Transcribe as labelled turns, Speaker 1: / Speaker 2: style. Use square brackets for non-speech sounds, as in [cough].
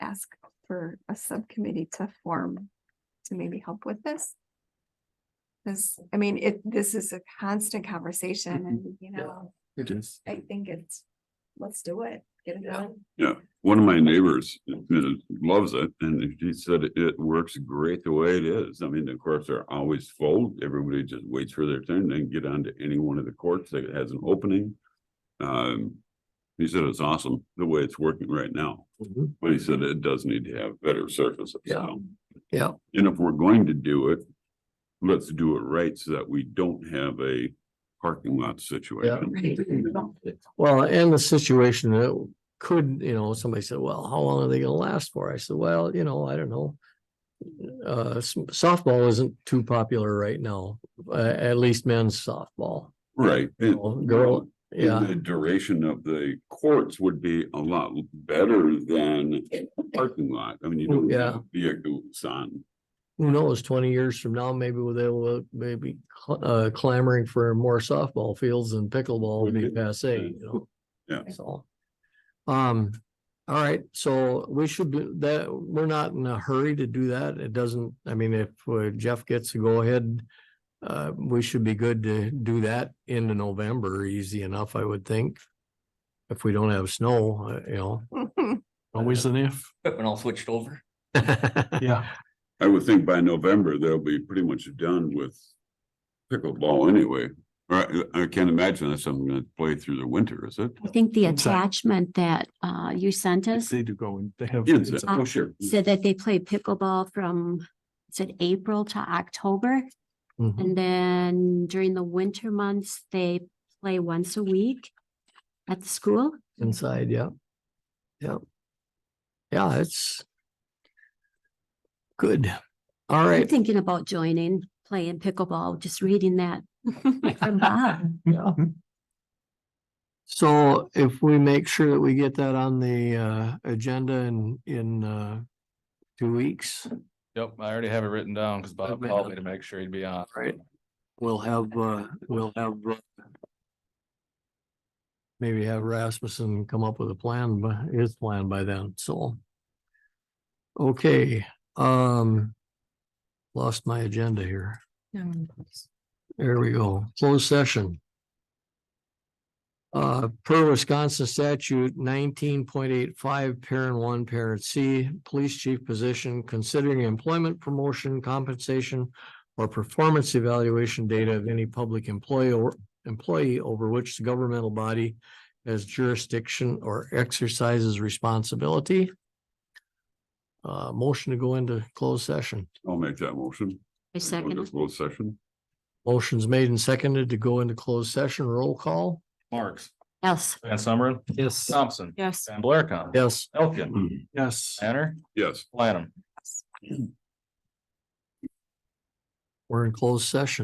Speaker 1: ask for a subcommittee to form to maybe help with this? Cause I mean, it, this is a constant conversation
Speaker 2: Mhm.
Speaker 1: and, you
Speaker 2: Yeah.
Speaker 1: know,
Speaker 2: It is.
Speaker 1: I think it's, let's do it, get it done.
Speaker 3: One of my neighbors uh, loves it and he said it works great the way it is. I mean, the courts are always full. Everybody just waits for their turn, then get onto any one of the courts that has an opening. Um, he said it's awesome the way it's working right now,
Speaker 2: Mm-hmm.
Speaker 3: but he said it does need to have better surfaces.
Speaker 2: Yeah.
Speaker 3: So,
Speaker 2: Yeah,
Speaker 3: And if we're going to do it, let's do it right so that we don't have a parking lot situation.
Speaker 1: Right.
Speaker 2: well, and the situation that could, you know, somebody said, well, how long are they gonna last for? I said, well, you know, I don't know. Uh, s- softball isn't too popular right now, uh, at least men's softball.
Speaker 3: Right. and-
Speaker 2: Well, girl,
Speaker 3: And
Speaker 2: Yeah,
Speaker 3: The duration of the courts would be a lot better than parking lot. I mean, you don't
Speaker 2: Yeah.
Speaker 3: have vehicles on.
Speaker 2: who
Speaker 3: Mm-hmm.
Speaker 2: knows, twenty years from now, maybe they will, maybe uh clamoring for more softball fields and pickleball will be
Speaker 3: Would be.
Speaker 2: passe, you know?
Speaker 3: Yeah.
Speaker 2: So. Um, all right, so we should do that, we're not in a hurry to do that. It doesn't, I mean, if uh, Jeff gets to go ahead. Uh, we should be good to do that into November, easy enough, I would think. If we don't have snow, uh, you know. [laughs]
Speaker 1: [laughs]
Speaker 4: Always an if.
Speaker 5: [laughs] equipment all switched over.
Speaker 4: Uh,
Speaker 2: Mm-hmm.
Speaker 4: Yeah.
Speaker 3: I would think by November, they'll be pretty much done with pickleball anyway. Or I I can't imagine that's something that's played through the winter, is it?
Speaker 6: I think the
Speaker 4: Exactly.
Speaker 6: attachment that uh you sent us
Speaker 4: They do go and they have.
Speaker 3: Yes,
Speaker 4: it's a-
Speaker 3: oh, sure.
Speaker 6: said that they play pickleball from, it said April to October.
Speaker 2: Mhm.
Speaker 6: And then during the winter months, they play once a week at the school.
Speaker 2: Inside, yeah. Yeah. Yeah, it's. Good. All
Speaker 6: I'm
Speaker 2: right.
Speaker 6: thinking about joining, playing pickleball, just reading that [laughs] from [laughs] Bob.
Speaker 2: Yeah. [laughs] So if we make sure that we get that on the uh agenda in in uh two weeks,
Speaker 5: Yep, I already have it written down because Bob
Speaker 2: Okay.
Speaker 5: called me to make sure he'd be on.
Speaker 2: Right. we'll have uh, we'll have. uh, Maybe have Rasmussen come up with a plan, but his plan by then, so. Okay, um. Lost my agenda here. There we go, closed session. Uh, per Wisconsin statute nineteen point eight five, parent one, parent C, police chief position, considering employment promotion compensation. Or performance evaluation data of any public employee or employee over which the governmental body. Has jurisdiction or exercises responsibility. Uh, motion to go into closed session.
Speaker 3: I'll make that motion.
Speaker 6: I
Speaker 3: We'll
Speaker 6: second.
Speaker 3: just Close session.
Speaker 2: Motion's made and seconded to go into closed session, roll call.
Speaker 5: Marks,
Speaker 6: Yes.
Speaker 5: Van Summeren,
Speaker 2: Yes.
Speaker 5: Thompson,
Speaker 6: Yes.
Speaker 5: Van Blarcom.
Speaker 2: Yes.
Speaker 5: Elkin,
Speaker 6: Mm-hmm.
Speaker 4: Yes.
Speaker 5: Tanner,
Speaker 3: Yes.
Speaker 5: Lanham.
Speaker 2: We're in closed session.